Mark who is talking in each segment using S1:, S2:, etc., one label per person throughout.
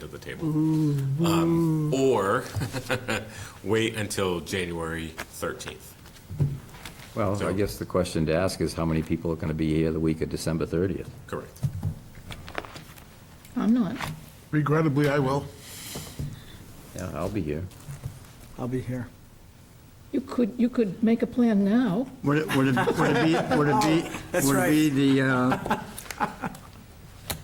S1: to the table. Um, Or wait until January 13th.
S2: Well, I guess the question to ask is how many people are going to be here the week of December 30th?
S1: Correct.
S3: I'm not.
S4: Regrettably, I will.
S2: Yeah, I'll be here.
S5: I'll be here.
S3: You could, you could make a plan now.
S6: Would it, would it would it be, would it be,
S5: That's
S6: would it be the, uh,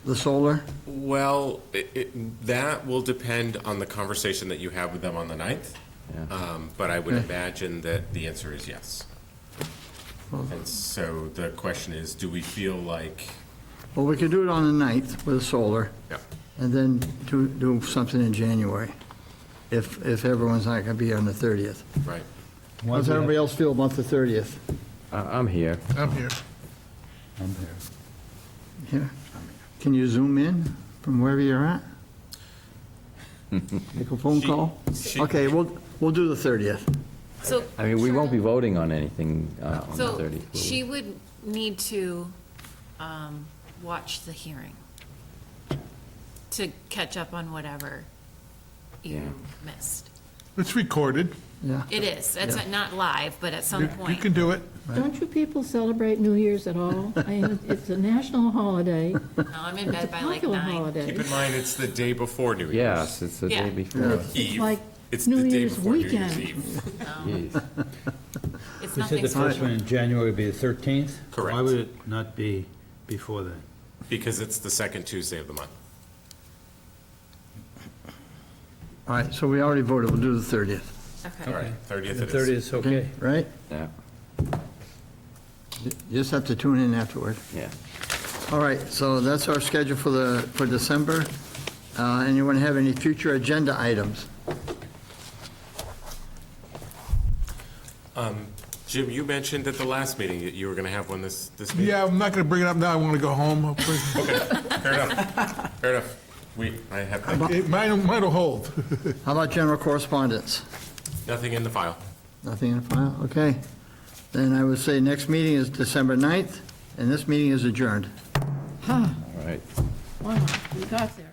S6: the solar?
S1: Well, it, it, that will depend on the conversation that you have with them on the 9th.
S2: Yeah.
S1: Um, But I would imagine that the answer is yes. And so the question is, do we feel like,
S6: Well, we could do it on the 9th with the solar,
S1: yeah,
S6: and then do, do something in January, if, if everyone's not going to be on the 30th.
S1: right?
S6: How does everybody else feel about the 30th?
S2: I- I'm here.
S4: I'm here.
S5: I'm here.
S6: Yeah. Can you zoom in from wherever you're at? Make a phone
S1: She-
S6: call?
S1: she-
S6: Okay, we'll, we'll do the 30th.
S7: So.
S2: I mean, we won't be
S7: Charlotte-
S2: voting on anything uh, on the 30th. will
S7: So
S2: we?
S7: she would need to um, watch the hearing to catch up on whatever
S2: Yeah.
S7: you missed.
S4: It's recorded.
S6: Yeah.
S7: It is, it's not live, but at some
S4: You you
S7: point.
S4: can do it.
S3: Don't you people celebrate New Year's at all? I mean, it's a national holiday.
S7: No, I'm in
S3: It's a
S7: bed by like
S3: popular
S7: nine.
S3: holiday.
S1: Keep in mind, it's the day before New Year's.
S2: Yes, it's the day
S7: Yeah.
S2: before.
S3: It's
S1: Eve.
S3: like
S1: It's
S3: New
S1: the day
S3: Year's
S1: before New Year's
S3: weekend.
S1: Eve.
S2: Jeez.
S7: It's
S8: You said
S7: nothing
S8: the first one
S7: special.
S8: in January would be the 13th?
S1: Correct.
S8: Why would it not be before then?
S1: Because it's the second Tuesday of the month.
S6: All right, so we already voted, we'll do the 30th,
S1: All
S7: Okay.
S1: right, 30th
S8: The
S1: it is.
S8: 30th is okay.
S6: right?
S2: Yeah,
S6: You just have to tune in afterward.
S2: yeah.
S6: All right, so that's our schedule for the, for December. Uh, Anyone have any future agenda items?
S1: Jim, you mentioned at the last meeting that you were going to have one this, this meeting.
S4: Yeah, I'm not going to bring it up now. I want to go home. hopefully.
S1: Fair enough, fair enough. We, I have nothing-
S4: It might, might hold.
S6: How about general correspondence?
S1: nothing in the file.
S6: Nothing in the file? Okay. Then I would say next meeting is December 9th, and this meeting is adjourned.
S2: All right.
S3: Wow, we got there.